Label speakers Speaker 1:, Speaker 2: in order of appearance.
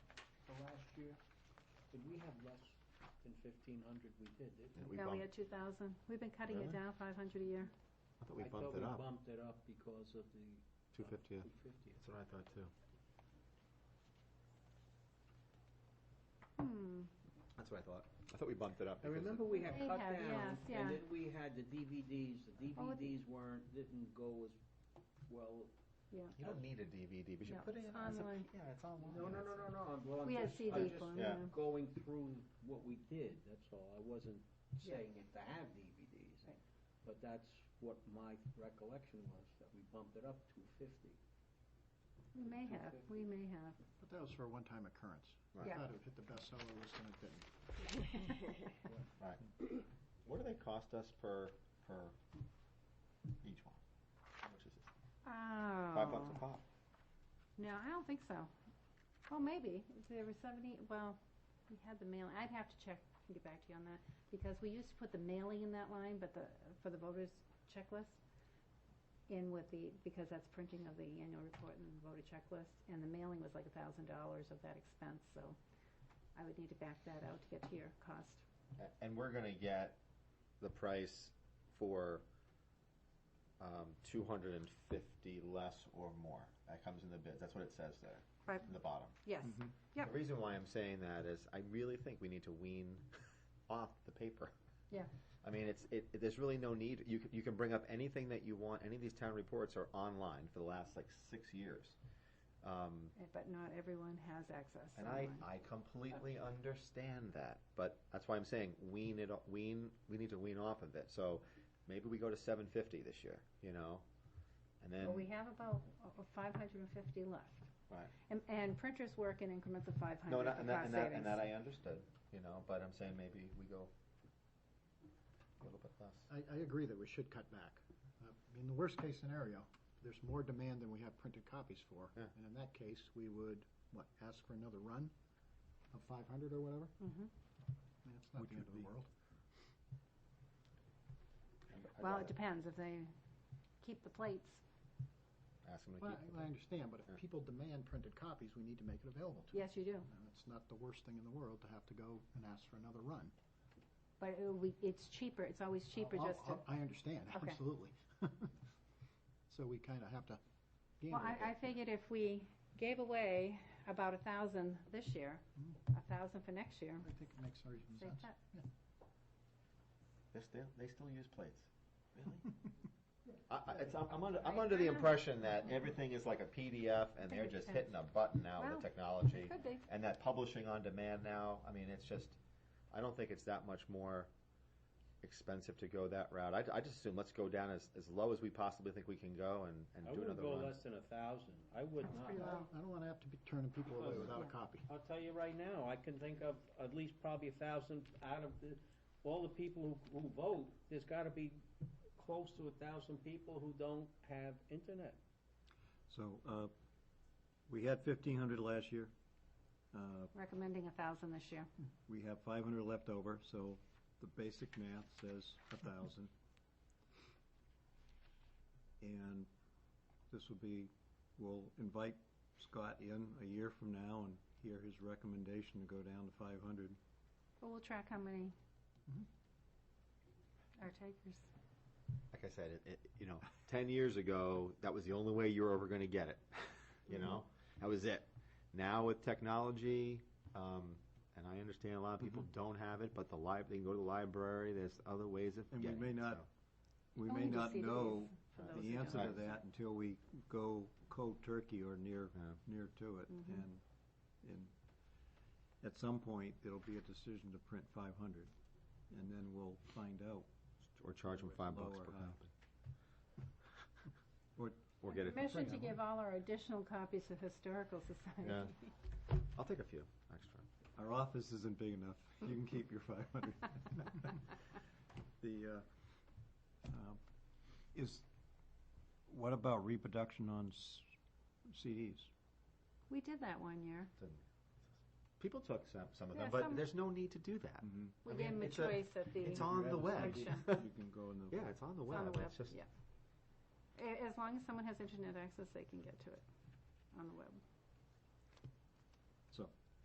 Speaker 1: year? Did we have less than fifteen hundred? We did, didn't
Speaker 2: Yeah,
Speaker 1: we?
Speaker 2: we
Speaker 3: No, we
Speaker 2: bumped,
Speaker 3: had two thousand. We've been cutting
Speaker 2: Really?
Speaker 3: it down five hundred a year.
Speaker 2: I thought we bumped
Speaker 1: I
Speaker 2: it
Speaker 1: thought we
Speaker 2: up,
Speaker 1: bumped it up because of the. uh,
Speaker 2: two fiftieth.
Speaker 1: Two fiftieth.
Speaker 2: That's what I thought too.
Speaker 3: Hmm.
Speaker 2: That's what I thought. I thought we bumped it up.
Speaker 1: I
Speaker 2: because
Speaker 1: remember we had
Speaker 3: They
Speaker 1: cut
Speaker 3: have,
Speaker 1: down,
Speaker 3: yes, yeah.
Speaker 1: and then we had the DVDs, the
Speaker 3: Oh, with the-
Speaker 1: DVDs weren't, didn't go as well.
Speaker 2: You don't need a DVD, but you
Speaker 3: No,
Speaker 2: put it
Speaker 3: it's
Speaker 2: in as a,
Speaker 3: online.
Speaker 2: yeah, it's online.
Speaker 1: No, no, no, no, no, I'm, well, I'm
Speaker 3: We had
Speaker 1: just, I'm
Speaker 3: CD
Speaker 1: just
Speaker 3: form,
Speaker 2: yeah.
Speaker 3: yeah.
Speaker 1: going through what we did, that's all. I wasn't
Speaker 3: Yeah.
Speaker 1: saying it to have DVDs.
Speaker 3: Right.
Speaker 1: But that's what my recollection was, that we bumped it up to fifty.
Speaker 3: We may have, we may have.
Speaker 4: But that was for a one-time occurrence. I
Speaker 3: Yeah.
Speaker 4: thought it hit the bestseller list and it didn't.
Speaker 2: What do they cost us per, per each one? How much is it?
Speaker 3: Oh.
Speaker 2: Five bucks a pop.
Speaker 3: No, I don't think so. Oh, maybe. There were seventy, well, we had the mail, I'd have to check and get back to you on that, because we used to put the mailing in that line, but the, for the voters checklist, in with the, because that's printing of the annual report and the voter checklist, and the mailing was like a thousand dollars of that expense, so I would need to back that out to get to your cost.
Speaker 2: A- And we're gonna get the price for, um, two hundred and fifty less or more. That comes in the bid. That's what it says there.
Speaker 3: Right.
Speaker 2: In the bottom.
Speaker 3: Yes.
Speaker 2: Mm-hmm.
Speaker 3: Yep.
Speaker 2: The reason why I'm saying that is I really think we need to wean off the paper.
Speaker 3: Yeah.
Speaker 2: I mean, it's, it, it- there's really no need, you, c- you can bring up anything that you want, any of these town reports are online for the last like six years. Um,
Speaker 3: Eh, But not everyone has access.
Speaker 2: and I,
Speaker 3: online.
Speaker 2: I completely understand that, but that's why I'm saying wean it, o- wean, we need to wean off of it, so maybe we go to seven fifty this year, you know? And then,
Speaker 3: Well, we have about uh, five hundred and fifty left.
Speaker 2: Right.
Speaker 3: And, and printers work in increments of five
Speaker 2: no,
Speaker 3: hundred
Speaker 2: and that, and
Speaker 3: for
Speaker 2: that,
Speaker 3: cost
Speaker 2: and that, and
Speaker 3: savings.
Speaker 2: that I understood, you know, but I'm saying maybe we go a little bit less.
Speaker 4: I, I agree that we should cut back. Uh, In the worst-case scenario, there's more demand than we have printed copies for.
Speaker 2: Yeah.
Speaker 4: And in that case, we would, what, ask for another run of 500 or whatever?
Speaker 3: Mhm.
Speaker 4: I mean, it's not the end of the world.
Speaker 2: I'd- I'd
Speaker 3: Well,
Speaker 2: rather
Speaker 3: it depends, if they keep the plates,
Speaker 2: Ask them to
Speaker 4: Well,
Speaker 2: keep.
Speaker 4: I I understand, but
Speaker 2: Yeah.
Speaker 4: if people demand printed copies, we need to make it available to them.
Speaker 3: yes, you do,
Speaker 4: And it's not the worst thing in the world to have to go and ask for another run.
Speaker 3: but it will be- it's cheaper, it's always cheaper
Speaker 4: I'll-
Speaker 3: just to,
Speaker 4: I'll- I understand,
Speaker 3: Okay.
Speaker 4: absolutely. So we kind of have to gain a
Speaker 3: well,
Speaker 4: little bit.
Speaker 3: I, I figured if we gave away about a thousand this year,
Speaker 2: Mm.
Speaker 3: a thousand for next year,
Speaker 4: I think it makes reasonable
Speaker 3: save
Speaker 4: sense.
Speaker 3: that.
Speaker 2: They still, they still use plates. Really? I, I, it's, I'm, I'm under, I'm
Speaker 3: I
Speaker 2: under the
Speaker 3: know.
Speaker 2: impression that everything is like a PDF and they're just hitting a button now with the
Speaker 3: Well,
Speaker 2: technology.
Speaker 3: It could be,
Speaker 2: And that publishing on demand now, I mean, it's just, I don't think it's that much more expensive to go that route. I, I just assume let's go down as, as low as we possibly think we can go and,
Speaker 1: I
Speaker 2: and do
Speaker 1: wouldn't
Speaker 2: another
Speaker 1: go
Speaker 2: one.
Speaker 1: less than a thousand. I would
Speaker 3: That's
Speaker 1: not.
Speaker 3: pretty
Speaker 4: I
Speaker 3: low.
Speaker 4: don't- I don't want to have to be turning people away
Speaker 1: Well,
Speaker 4: without
Speaker 1: no.
Speaker 4: a copy.
Speaker 1: I'll tell you right now, I can think of at least probably a thousand out of the, all the people who, who vote, there's gotta be close to a thousand people who don't have internet.
Speaker 5: So, uh, we had fifteen hundred last year. Uh,
Speaker 3: recommending a thousand this year,
Speaker 5: we have five hundred left over, so the basic math says a thousand. And this will be, we'll invite Scott in a year from now and hear his recommendation to go down to five hundred.
Speaker 3: but we'll track how many
Speaker 4: Mhm.
Speaker 2: Mm-hmm.
Speaker 3: are takers.
Speaker 2: Like I said, it, it, you know, ten years ago, that was the only way you were ever gonna get it, you
Speaker 5: Mm-hmm.
Speaker 2: know? That was it. Now with technology, um, and I understand a lot of people
Speaker 5: Mm-hmm.
Speaker 2: don't have it, but the lib, they can go to the library, there's other ways of
Speaker 5: And we
Speaker 2: getting it.
Speaker 5: may not- We
Speaker 3: Oh,
Speaker 5: may
Speaker 3: we do
Speaker 5: not
Speaker 3: CDs
Speaker 5: know
Speaker 3: for
Speaker 2: uh,
Speaker 3: those who
Speaker 5: the
Speaker 3: don't.
Speaker 5: answer to
Speaker 2: Right.
Speaker 5: that until we go cold turkey or near,
Speaker 2: Yeah.
Speaker 5: near to it.
Speaker 2: Mm-hmm.
Speaker 3: Mhm.
Speaker 5: And, and at some point, it'll be a decision to print five hundred, and then we'll find out.
Speaker 2: So- Or charge them five bucks
Speaker 5: Lower uh,
Speaker 2: per
Speaker 5: high.
Speaker 2: copy.
Speaker 5: Or-
Speaker 2: Or get it. for
Speaker 3: Permission
Speaker 2: free.
Speaker 3: to give all our additional copies of Historical
Speaker 2: Yeah.
Speaker 3: Society.
Speaker 2: I'll take a few, extra.
Speaker 5: Our office isn't big enough. You can keep your five hundred. The, uh, um, is, what about reproduction on s- CDs?
Speaker 3: We did that one year.
Speaker 2: People took some, some of
Speaker 3: Yeah,
Speaker 2: them, but
Speaker 3: some-
Speaker 2: there's no need to do that.
Speaker 3: We
Speaker 2: I
Speaker 3: gave
Speaker 2: mean,
Speaker 3: them a
Speaker 2: it's a-
Speaker 3: choice at the,
Speaker 2: It's
Speaker 3: it's
Speaker 5: all-
Speaker 2: on the web.
Speaker 5: You
Speaker 3: Sure.
Speaker 5: can go in the.
Speaker 2: Yeah, it's on the
Speaker 3: on the
Speaker 2: web.
Speaker 3: web,
Speaker 2: It's just,
Speaker 3: yeah. A- As long as someone has internet access, they can get to it on the web.